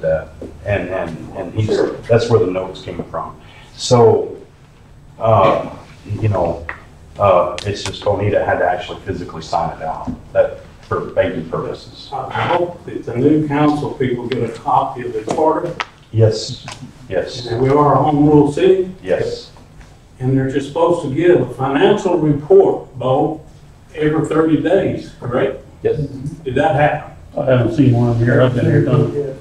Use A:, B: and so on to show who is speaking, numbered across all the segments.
A: that. uh, And, and, and he's, that's where the notes came from. So, uh, you know, uh, it's just Bonita had to actually physically sign it out, that, for banking purposes.
B: I hope that the new council people get a copy of the charter,
A: Yes,
B: and
A: yes,
B: that we are a home rule city,
A: yes,
B: and they're just supposed to give a financial report, Bo, every thirty days, correct?
C: Yes.
B: Did that happen?
D: I haven't seen one here, I've been here done.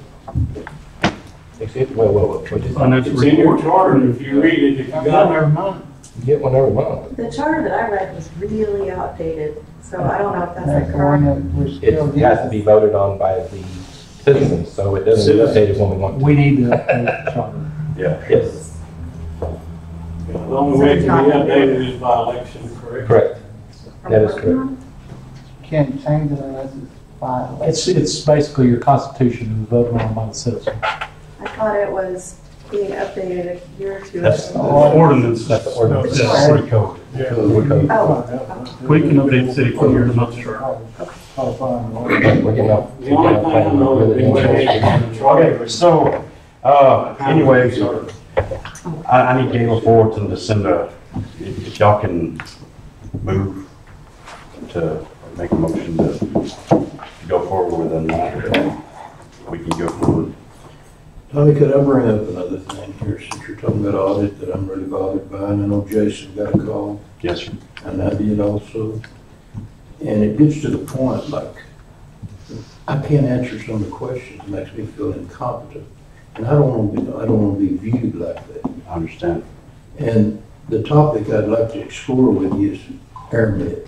C: Except, well, well, well, we just
D: Financial
B: It's in your
D: report.
B: charter, and if you read it, if you got it.
C: get one every month.
E: The charter that I read was really outdated, so I don't know if that's
F: That's
E: the
F: the one
E: correct.
F: that we're
C: It
F: still.
C: has to be voted on by the citizens, so it doesn't get updated when we want to.
F: We need to update the charter.
A: yeah.
C: Yes,
B: The only way it can be updated is by election, correct?
C: correct. That is correct.
F: Can't change it unless it's filed.
G: It's, it's basically your constitution is voted on by the citizens.
E: I thought it was being updated a year or two
A: That's the
E: ago.
D: Ordinance.
C: That's the ordinance.
D: Yeah.
A: That's city code.
C: We're
E: Oh.
D: We can update city code here in another chart.
C: getting off.
B: The only thing I know is they went ahead and charter.
A: Okay, so, uh, anyway, I, I need Galen Fullerton to send a, if if y'all can move to make a motion to go forward with a matter, we can go forward.
H: Tommy, could I bring up another thing here, since you're talking about audit that I'm really bothered by, and I know Jason got a call,
A: Yes, sir.
H: and I did also. And it gets to the point, like, I can't answer some of the questions, it makes me feel incompetent. And I don't want to be, I don't want to be viewed like that.
A: I understand.
H: And the topic I'd like to explore with you is airmen,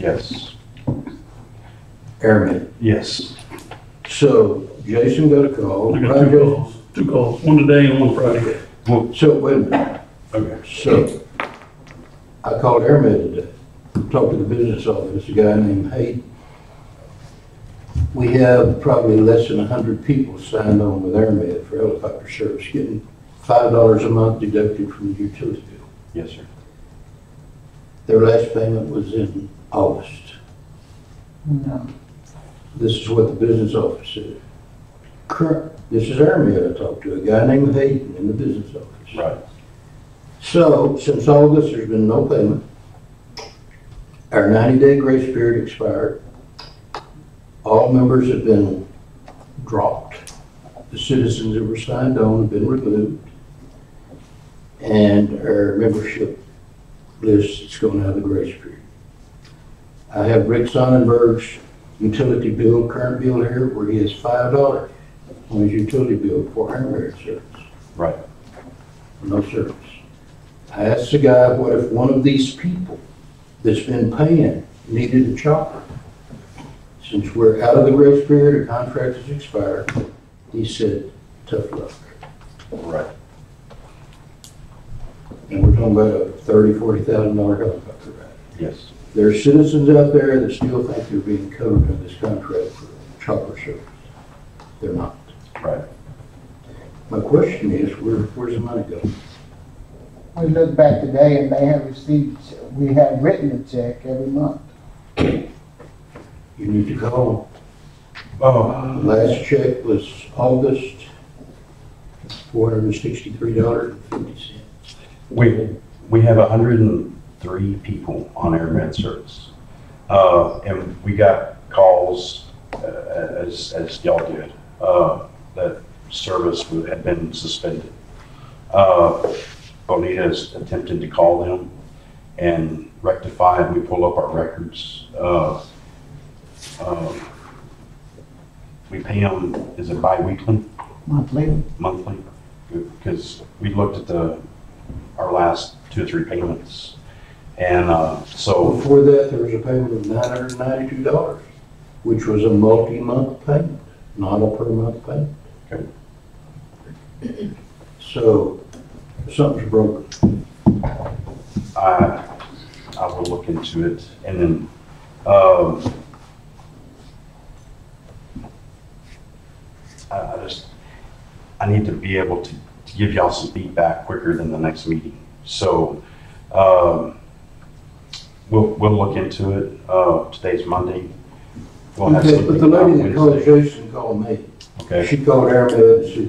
A: Yes,
H: airmen.
A: yes.
H: So Jason got a call,
D: I
H: right,
D: got two
H: Jason?
D: calls, two calls, one today and one Friday.
H: So wait a minute.
A: Okay.
H: So, I called AirMed today, talked to the business office, a guy named Hayden. We have probably less than hundred people signed on with AirMed for helicopter service, getting five dollars a month deducted from the utility bill.
A: Yes, sir.
H: Their last payment was in August.
F: No,
H: This is what the business office said. Current, this is AirMed I talked to, a guy named Hayden in the business office.
A: Right.
H: So, since August, there's been no payment. Our 90-day grace period expired. All members have been dropped. The citizens that were signed on have been removed. And our membership list is going out of the grace period. I have Rick Sonnenberg's utility bill, current bill here, where he has $5 on his utility bill for internet service.
A: Right.
H: No service. I asked the guy, what if one of these people that's been paying needed a chopper? Since we're out of the grace period, our contract has expired, he said, tough luck.
A: Right.
H: And we're talking about a thirty, forty thousand dollar helicopter ride.
A: Yes.
H: There are citizens out there that still think they're being covered in this contract for chopper service. They're not.
A: Right.
H: My question is, where, where's the money going?
F: we look back today and they have received, we have written a check every month.
H: You need to call.
A: Oh,
H: Last check was August, four hundred and sixty-three dollars and fifty cents.
A: we, we have hundred and three people on air med service. Uh, and we got calls, uh, as, as y'all did, uh, that service wa- had been suspended. Uh, Bonita is attempting to call them and rectify, and we pull up our records. Uh, um, We pay them, is it bi-weekly?
F: Monthly.
A: monthly, because we looked at the, our last two or three payments. And uh, so,
H: Before that, there was a payment of nine hundred and ninety-two dollars, which was a multi-month payment, not a per-month payment.
A: Okay.
H: So, something's broken.
A: I, I will look into it, and then, um, I, I just, I need to be able to, to give y'all some feedback quicker than the next meeting, so, um, we'll, we'll look into it, uh, today's Monday. We'll have
H: Okay, but the
A: something by
H: lady that called
A: Wednesday.
H: Jason called me.
A: okay?
H: She called Aaron Hood and said,